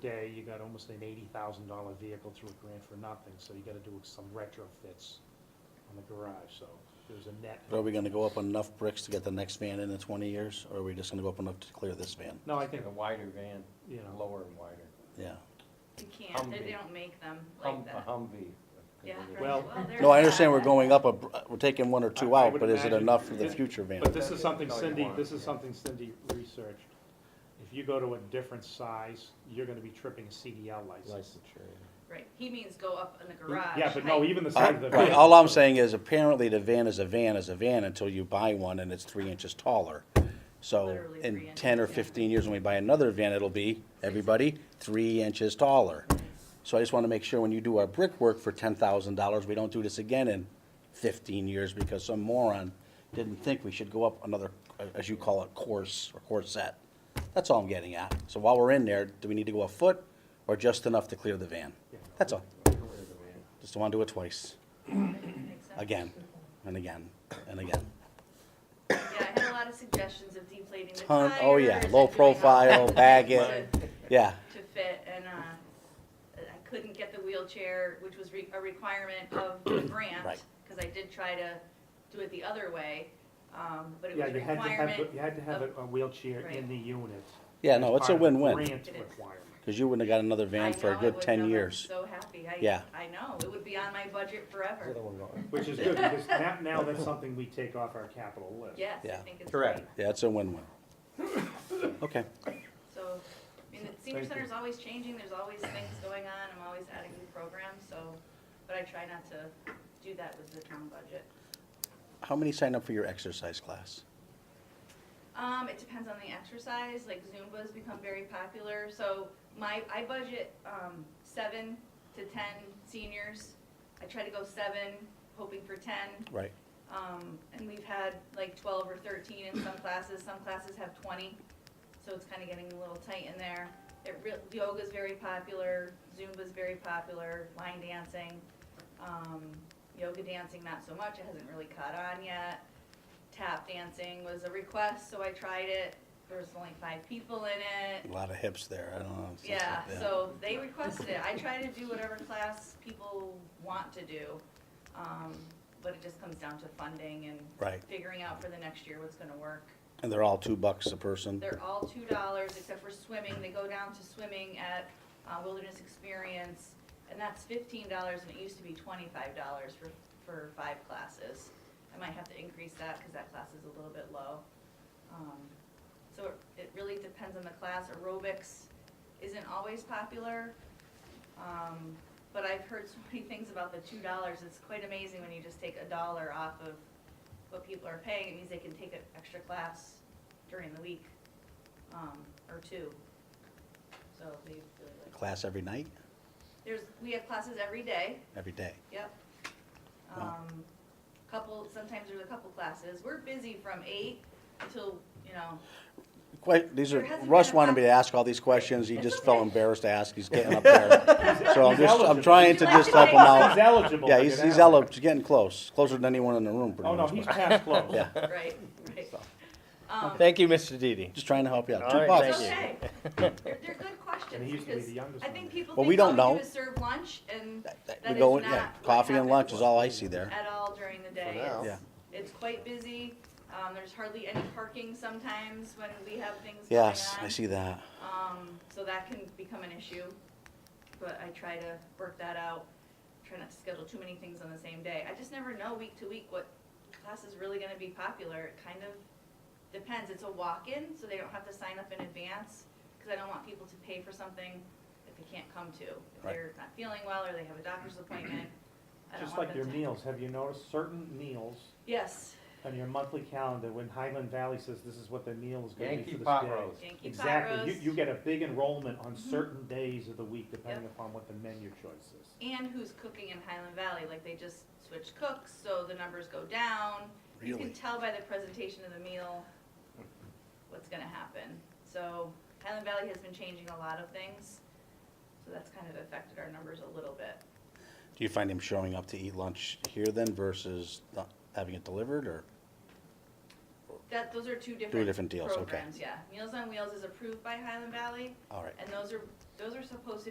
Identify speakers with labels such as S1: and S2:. S1: day, you got almost an eighty thousand dollar vehicle through a grant for nothing, so you gotta do some retrofits on the garage, so there's a net.
S2: But Are we gonna go up enough bricks to get the next van in in twenty years, or are we just gonna go up enough to clear this van?
S1: No, I think,
S3: Get a wider van,
S1: you know,
S3: lower and wider.
S2: Yeah.
S4: You can't, they, they
S3: Humvee.
S4: don't make them
S3: Hum-
S4: like
S3: A
S4: that.
S1: uh-huh.
S3: Humvee.
S4: Yeah. right.
S1: Well-
S4: there's
S2: No, I understand
S4: that.
S2: we're going up, a br- we're taking one or two
S1: I- I
S2: out,
S1: would
S2: but is it
S1: imagine-
S2: enough for the future van?
S1: but this is something
S3: No, you
S1: Cindy,
S3: won't,
S1: this is
S3: yeah.
S1: something Cindy researched. If you go to a different size, you're gonna be tripping a CDL license.
S3: Licensure.
S4: Right, he means go up in the garage.
S1: Yeah, but no,
S4: height.
S1: even the
S2: I-
S1: size of the
S2: Right,
S1: van,
S2: all I'm saying is apparently the van is a van is a van until you buy one and it's three inches taller. So
S4: Literally
S2: in
S4: three
S2: ten or
S4: inches, yeah.
S2: fifteen years, when we buy another van, it'll be, everybody, three inches taller. So I just wanna make sure when you do our brickwork for ten thousand dollars, we don't do this again in fifteen years because some moron didn't think we should go up another, uh, as you call it, course or corset. That's all I'm getting at. So while we're in there, do we need to go a foot or just enough to clear the van? That's all. Just don't wanna do it twice
S4: Makes sense.
S2: again and again and again.
S4: Yeah, I had a lot of suggestions of deflating the
S2: Ton-
S4: tires.
S2: oh, yeah,
S4: and
S2: low
S4: doing all
S2: profile,
S4: kinds of
S2: bag
S4: things
S2: it.
S4: To
S2: Yeah,
S4: to fit, and, uh, I couldn't get the wheelchair, which was re- a requirement of the grant.
S2: Right.
S4: Cause I did try to do it the other way, um, but it
S1: yeah,
S4: was a
S1: you had to have,
S4: requirement.
S1: you had to have a a wheelchair in
S4: Right.
S1: the unit.
S2: yeah,
S1: as
S2: no, it's a
S1: part of the
S2: win-win,
S1: Grant requirement.
S2: because you wouldn't have got another
S4: I
S2: van for a
S4: know, I
S2: good
S4: would
S2: ten
S4: never-
S2: years.
S4: So happy, I,
S2: Yeah.
S4: I know, it would be on my budget forever.
S1: Which is good, because now, now that's something we take off our capital list.
S4: Yes, I
S2: Yeah.
S4: think it's great.
S3: Correct.
S2: Yeah, it's a win-win. Okay,
S4: So, I mean, the senior
S3: Thank
S4: center's always changing, there's always things going on, I'm always adding new programs, so, but I try not to do that with the town budget.
S2: how many sign up for your exercise class?
S4: Um, it depends on the exercise, like Zumba's become very popular, so my, I budget, um, seven to ten seniors. I try to go seven, hoping for ten,
S2: Right,
S4: um, and we've had like twelve or thirteen in some classes, some classes have twenty, so it's kinda getting a little tight in there. It real, yoga's very popular, Zumba's very popular, line dancing, um, yoga dancing not so much, it hasn't really caught on yet. Tap dancing was a request, so I tried it, there was only five people in it,
S2: a lot of hips there, I don't know. it's-
S4: yeah, so they requested it. I try to do whatever class people want to do. Um, but it just comes down to funding and
S2: Right,
S4: figuring out for the next year what's gonna work.
S2: and they're all two bucks a person,
S4: They're all two dollars except for swimming. They go down to swimming at uh, Wilderness Experience. And that's fifteen dollars and it used to be twenty-five dollars for, for five classes. I might have to increase that because that class is a little bit low. Um, So it- it really depends on the class. Aerobics isn't always popular. Um, But I've heard so many things about the two dollars. It's quite amazing when you just take a dollar off of what people are paying. It means they can take an extra class during the week, um, or two. So they really like,
S2: class every night,
S4: there's, we have classes every day,
S2: every day.
S4: yep.
S2: Wow.
S4: Um, couple, sometimes there's a couple classes. We're busy from eight until, you know,
S2: Quite, these
S4: There
S2: are,
S4: hasn't
S2: Russ
S4: been a
S2: wanted me to ask all these questions, he just felt embarrassed to ask, he's getting up there. So I'm just, I'm trying to just help
S1: He's
S2: him out.
S1: eligible.
S2: Yeah,
S1: to
S2: he's,
S1: get
S2: he's
S1: out.
S2: elo- he's getting close, closer than anyone in the room, pretty
S1: Oh, no,
S2: much.
S1: he's
S2: but-
S1: past close.
S2: Yeah.
S4: right, right. Um,
S3: Thank you, Mr. Didi.
S2: Just trying to help you out. Two
S3: All right,
S2: bucks.
S3: thank
S4: It's
S3: you.
S4: okay. They're, they're good
S1: And
S4: questions
S1: he used to be
S4: because
S1: the youngest
S4: I
S1: one.
S4: think people
S2: Well, we
S4: think
S2: don't
S4: all we
S2: know.
S4: do is serve lunch and
S2: That-
S4: That
S2: We
S4: is
S2: go, in-
S4: not
S2: yeah,
S4: what
S2: coffee and lunch is
S4: happens.
S2: all I see there.
S4: at all during the day.
S5: now.
S2: Yeah.
S4: It's- It's quite busy. Um, there's hardly any parking sometimes when we have things going on.
S2: Yes, I see that.
S4: Um, so that can become an issue, but I try to work that out. Try not to schedule too many things on the same day. I just never know week to week what class is really gonna be popular. It kind of depends. It's a walk-in, so they don't have to sign up in advance, cause I don't want people to pay for something that they can't come to. If
S2: Right.
S4: they're not feeling well or they have a doctor's appointment, I don't
S1: Just
S4: want
S1: like
S4: them
S1: your
S4: to.
S1: meals, have you noticed certain meals
S4: Yes,
S1: on your monthly calendar, when Highland Valley says this is what the meal is gonna be for
S3: Yankee
S1: this day?
S3: pot roast.
S4: Yankee pot
S1: Exactly, you, you
S4: roast, Mm-hmm.
S1: get a big enrollment on certain days of the week, depending upon what the menu choice is.
S4: and who's cooking in Highland Valley, like they just switched cooks, so the numbers go down. You can
S2: Really?
S4: tell by the presentation of the meal what's gonna happen. So Highland Valley has been changing a lot of things, so that's kind of affected our numbers a little bit.
S2: Do you find him showing up to eat lunch here then versus not having it delivered or?
S4: That, those are two different
S2: different deals, okay.
S4: programs, yeah. Meals on Wheels is approved by Highland Valley,
S2: All right,
S4: and those are Those are supposed to